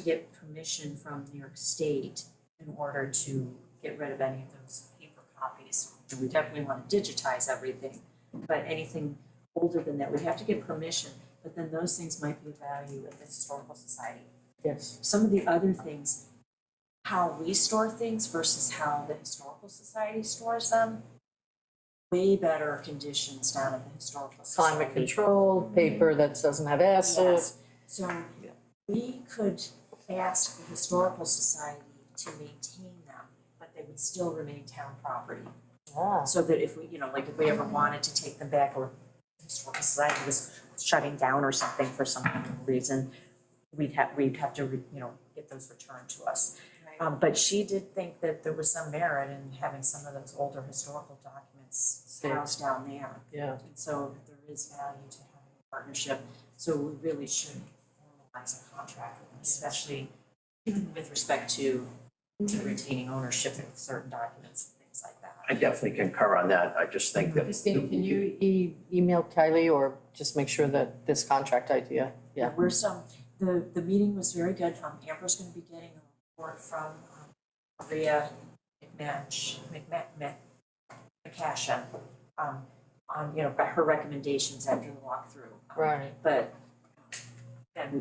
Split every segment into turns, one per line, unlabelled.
to get permission from New York State in order to get rid of any of those paper copies. We definitely wanna digitize everything, but anything older than that, we have to get permission, but then those things might be of value at the historical society.
Yes.
Some of the other things, how we store things versus how the historical society stores them, way better conditions down at the historical society.
Climate control, paper that doesn't have acid.
Yes, so we could ask the historical society to maintain them, but they would still remain town property.
Ah,
So that if we, you know, like if we ever wanted to take them back or the historical society was shutting down or something for some reason, we'd have, we'd have to, re- you know, get those returned to us. Um, but she did think that there was some merit in having some of those older historical documents
Saved.
housed down there.
Yeah,
And so there is value to having a partnership, so we really should formalize a contract, especially even with respect to to retaining ownership of certain documents and things like that.
I definitely concur on that. I just think that.
Christine, can you e- email Kylie or just make sure that this contract idea? Yeah.
We're some, the the meeting was very good, um Amber's gonna be getting a report from um Maria McMatch, McMa- Mc- McCashin, um on, you know, her recommendations after the walkthrough. Um,
Right,
but then we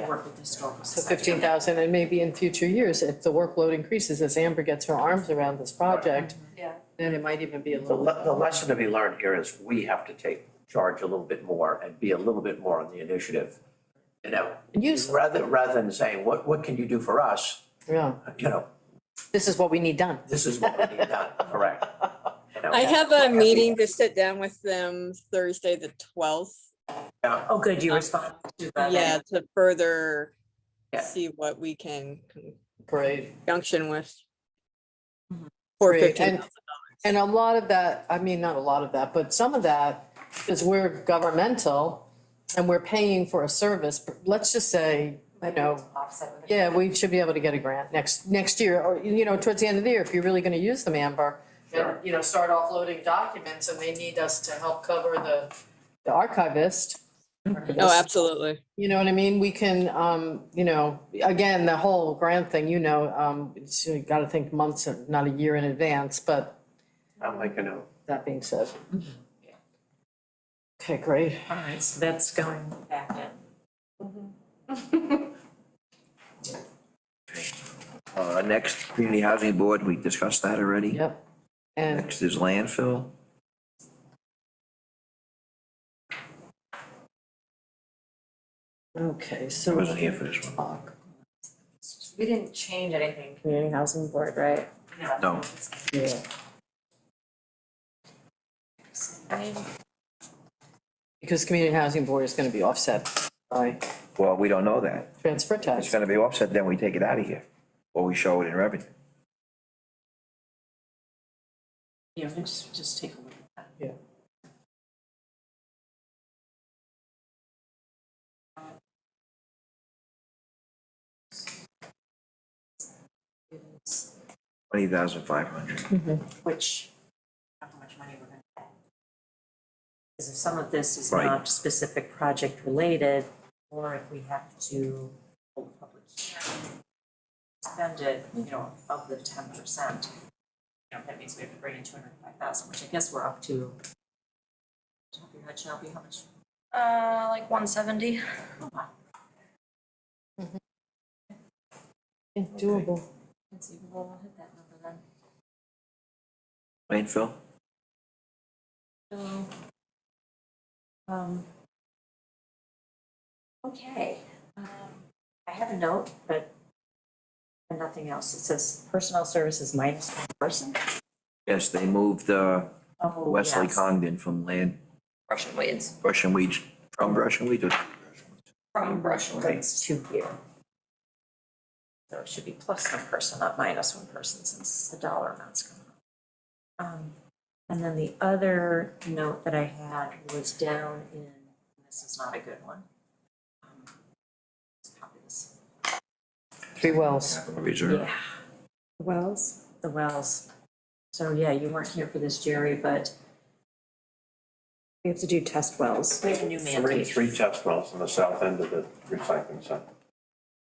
can work with the historical
so
society.
fifteen thousand and maybe in future years, if the workload increases as Amber gets her arms around this project.
Yeah.
Then it might even be a
The,
little.
le- the lesson to be learned here is we have to take charge a little bit more and be a little bit more on the initiative. You know,
Use,
rather, rather than saying, what, what can you do for us?
yeah,
You know,
this is what we need done.
this is what we need done, correct? You know,
I have a meeting to sit down with them Thursday, the twelfth.
yeah,
Oh, good, you responded to that.
Yeah, to further
Yeah.
see what we can
Great.
junction with.
Mhm.
For
Great,
fifteen
and-
thousand
And a lot of that, I mean, not a lot of that, but some of that is we're governmental and we're paying for a service. but Let's just say, you know,
Offset with it.
yeah, we should be able to get a grant next, next year or, you know, towards the end of the year if you're really gonna use them, Amber.
Sure.
And, you know, start offloading documents and they need us to help cover the, the archivist.
dollars. Oh, absolutely.
You know what I mean? We can, um, you know, again, the whole grant thing, you know, um, it's- you gotta think months, not a year in advance, but
I'm like, you know,
that being said.
Mhm. Yeah.
Okay, great.
All right, so that's going back in.
Uh, next, community housing board, we discussed that already.
Yep. And
Next is landfill.
okay,
I
so
wasn't here for this one.
talk.
We didn't change anything.
Community Housing Board, right?
No.
Yeah. Because community housing board is gonna be offset by
Well, we don't know that.
transfer
It's
tax.
gonna be offset, then we take it out of here, or we show it in revenue.
Yeah, we just, just take a look at that.
Yeah.
Twenty thousand five hundred.
Which, how much money we're gonna pay. Because if some of this is
Right.
not specific project related, or if we have to hold a public hearing, spend it, you know, of the ten percent. You know, that means we have to bring in two hundred and five thousand, which I guess we're up to. Top of your head, Shelby, how much?
Uh, like one seventy.
Oh, wow,
Yeah, Doable.
conceivable, we'll hit that number then.
Landfill?
So, um, okay, um, I have a note, but and nothing else. It says personnel services minus one person.
Yes, they moved, uh,
Oh,
Wesley
yes.
Congdon from land,
Russian weeds
Russian Weed, from Russian Weed to.
from Russian
So It's two here. So it should be plus one person, not minus one person, since the dollar amount's going up. Um, and then the other note that I had was down in, this is not a good one. Um, Let's copy this.
Three wells.
Capital Reserve.
Yeah. Wells? The wells. So, yeah, you weren't here for this, Jerry, but
We have to do test wells.
we have a new
three, three test wells on the south end of the recycling center.